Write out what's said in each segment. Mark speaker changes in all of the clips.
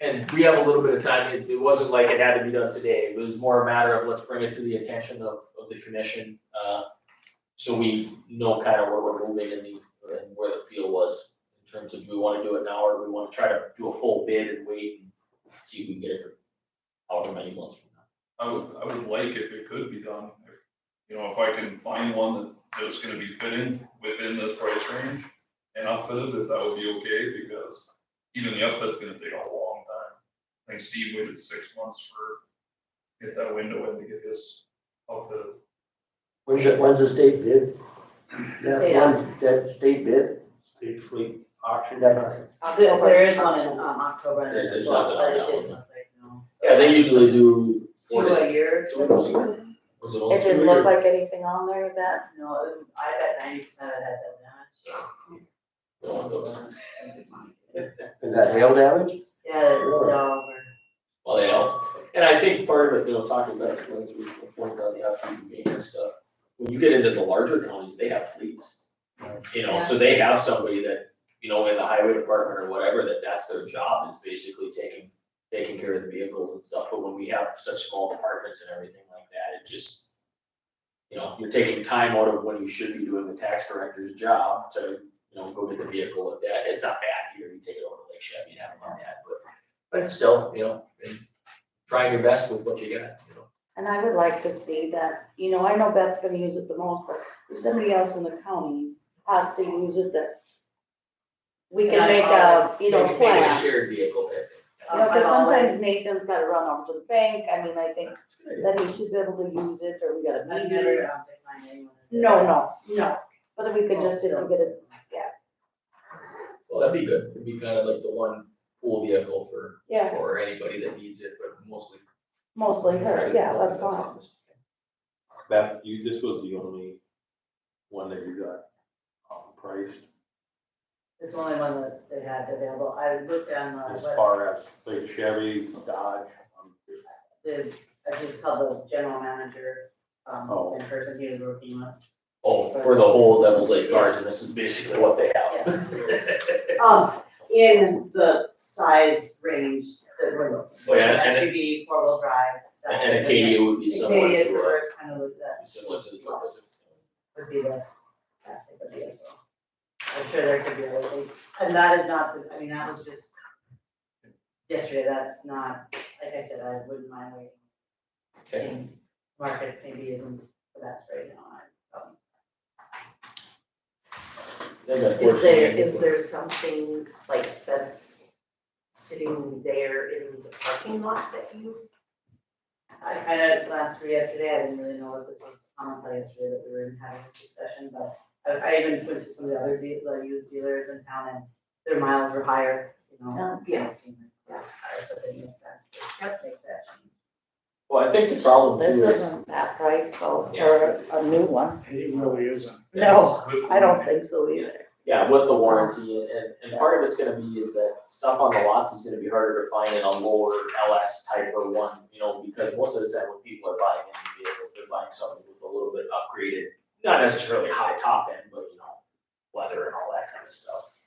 Speaker 1: and we have a little bit of time, it, it wasn't like it had to be done today, it was more a matter of let's bring it to the attention of, of the commission, uh, so we know kind of where we're moving and the, and where the field was, in terms of do we wanna do it now, or do we wanna try to do a full bid and wait and see if we can get it for however many months from now.
Speaker 2: I would, I would like if it could be done, if, you know, if I can find one that, that's gonna be fitting within this price range and outfitted, if that would be okay, because even the outfit's gonna take a long time. I think Steve waited six months for, get that window in to get his outfitted.
Speaker 3: When's the, when's the state bid?
Speaker 4: State
Speaker 3: That one's, that state bid?
Speaker 1: State fleet.
Speaker 3: Auction that,
Speaker 4: Uh, There, there is one in, um, October.
Speaker 1: There- there's
Speaker 4: well,
Speaker 1: nothing
Speaker 4: but
Speaker 1: on
Speaker 4: it
Speaker 1: that
Speaker 4: didn't
Speaker 1: one.
Speaker 4: look like, no.
Speaker 1: Yeah, they usually do four
Speaker 4: Two
Speaker 1: to
Speaker 4: a
Speaker 1: six.
Speaker 4: year.
Speaker 1: two months a year. Was only
Speaker 5: It
Speaker 1: two
Speaker 5: didn't
Speaker 1: a year?
Speaker 5: look like anything on there that,
Speaker 4: No, it- I bet ninety percent of that does
Speaker 1: Don't want those.
Speaker 4: not.
Speaker 3: is that hail damage?
Speaker 4: Yeah, no,
Speaker 1: Well, they all, and I think part of it, you know, talking about it, when we reported on the upcoming maintenance stuff, when you get into the larger counties, they have fleets. You know, so they have somebody that, you know, in the highway department or whatever, that that's their job is basically taking, taking care of the vehicles and stuff, but when we have such small departments and everything like that, it just, you know, you're taking time out of when you should be doing the tax director's job to, you know, go get the vehicle at that, it's not bad here, you take it over to Lake Chevy and have them on that, but, but still, you know, and trying your best with what you got, you know.
Speaker 5: and I would like to see that, you know, I know Beth's gonna use it the most, but if somebody else in the county has to use it, that we
Speaker 4: Yeah,
Speaker 5: can
Speaker 4: I
Speaker 5: make a,
Speaker 4: always-
Speaker 5: you know,
Speaker 1: Maybe take a
Speaker 5: plan.
Speaker 1: shared vehicle pick.
Speaker 5: You know,
Speaker 4: I
Speaker 5: cause sometimes
Speaker 4: always-
Speaker 5: Nathan's gotta run over to the bank, I mean, I think that he should be able to use it, or we got
Speaker 4: I've
Speaker 5: a meeting.
Speaker 4: never, um, declined anyone.
Speaker 5: No, no, no, but if we could just, if we get it,
Speaker 1: Well, that'd be good, it'd be kind of like the one pool vehicle for,
Speaker 5: yeah,
Speaker 1: for anybody that needs it, but mostly.
Speaker 5: mostly her, yeah, that's fine.
Speaker 6: Beth, you, this was the only one that you got um, priced
Speaker 4: It's the only one that they had available. I looked on the,
Speaker 6: as
Speaker 4: what,
Speaker 6: far as like Chevy, Dodge. um,
Speaker 4: the, I just called the general manager, um,
Speaker 6: Oh.
Speaker 4: same person he was working with.
Speaker 1: Oh, for the whole Devil's Lake cars, and this is basically what they have.
Speaker 4: Yeah. Um, in the size range that we're looking.
Speaker 1: Oh, yeah, and it-
Speaker 4: SUV, four-wheel drive. that
Speaker 1: And
Speaker 4: would
Speaker 1: a
Speaker 4: be-
Speaker 1: Acadia would be similar
Speaker 4: Acadia is the
Speaker 1: to,
Speaker 4: first kind of look that
Speaker 1: a- similar to the truck, is it?
Speaker 4: would be the, that type of vehicle. I'm sure there could be other things, and that is not, the- I mean, that was just yesterday, that's not, like I said, I wouldn't mind waiting.
Speaker 1: Okay.
Speaker 4: Seeing market maybe isn't the best right now, I, um,
Speaker 1: They got
Speaker 7: Is there,
Speaker 1: 14.
Speaker 7: is there something like that's sitting there in the parking lot that you?
Speaker 4: I kind of, last year yesterday, I didn't really know what this was, on until yesterday that we were having this discussion, but I, I even went to some of the other de- the used dealers in town and their miles were higher, you know.
Speaker 5: Oh.
Speaker 4: Yeah. So it makes sense to make that change.
Speaker 1: Well, I think the problem
Speaker 5: This
Speaker 1: too is,
Speaker 5: isn't that price though, for a new one.
Speaker 8: It really isn't.
Speaker 5: No, I don't think so either.
Speaker 1: yeah, with the warranty, and- and, and part of it's gonna be is that stuff on the lots is gonna be harder to find in a lower LS type or one, you know, because most of the time when people are buying any vehicles, they're buying something with a little bit upgraded, not necessarily high top end, but you know, leather and all that kind of stuff.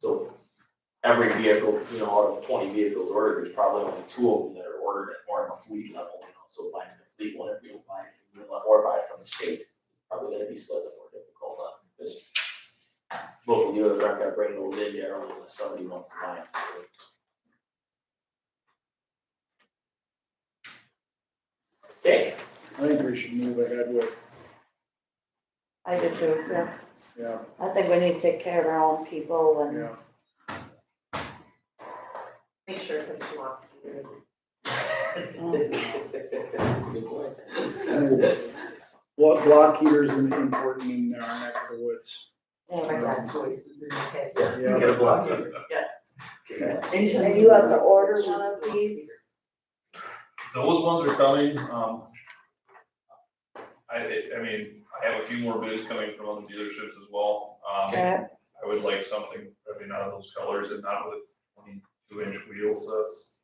Speaker 1: So every vehicle, you know, out of twenty vehicles ordered, there's probably only two of them that are ordered at more of a fleet level, you know, so finding a fleet one, if you don't buy it, from Greenland or buy it from the state, probably gonna be slightly more difficult, uh, because local dealers aren't gonna bring those in there unless somebody wants to buy them. Okay,
Speaker 8: I think we should move ahead with,
Speaker 5: I do too, yeah.
Speaker 8: yeah,
Speaker 5: I think we need to take care of our own people and,
Speaker 8: yeah.
Speaker 7: Make sure it was locked.
Speaker 1: that's a good point.
Speaker 8: Block, block heaters are important in our neck of the woods.
Speaker 7: My dad's voice is in my head.
Speaker 8: Yeah.
Speaker 1: Get a block in.
Speaker 5: and you have to order one of these.
Speaker 2: Those ones are coming, um. I, I mean, I have a few more bids coming from other dealerships as well, um.
Speaker 5: Okay.
Speaker 2: I would like something, I mean, out of those colors and not with twenty-two inch wheels, that's.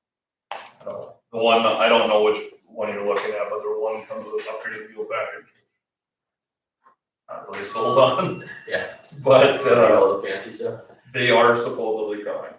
Speaker 2: I don't know. The one, I don't know which one you're looking at, but the one comes with upgraded wheel package. Not really sold on.
Speaker 1: Yeah.
Speaker 2: But, uh,
Speaker 1: All the fancy stuff.
Speaker 2: they are supposedly coming.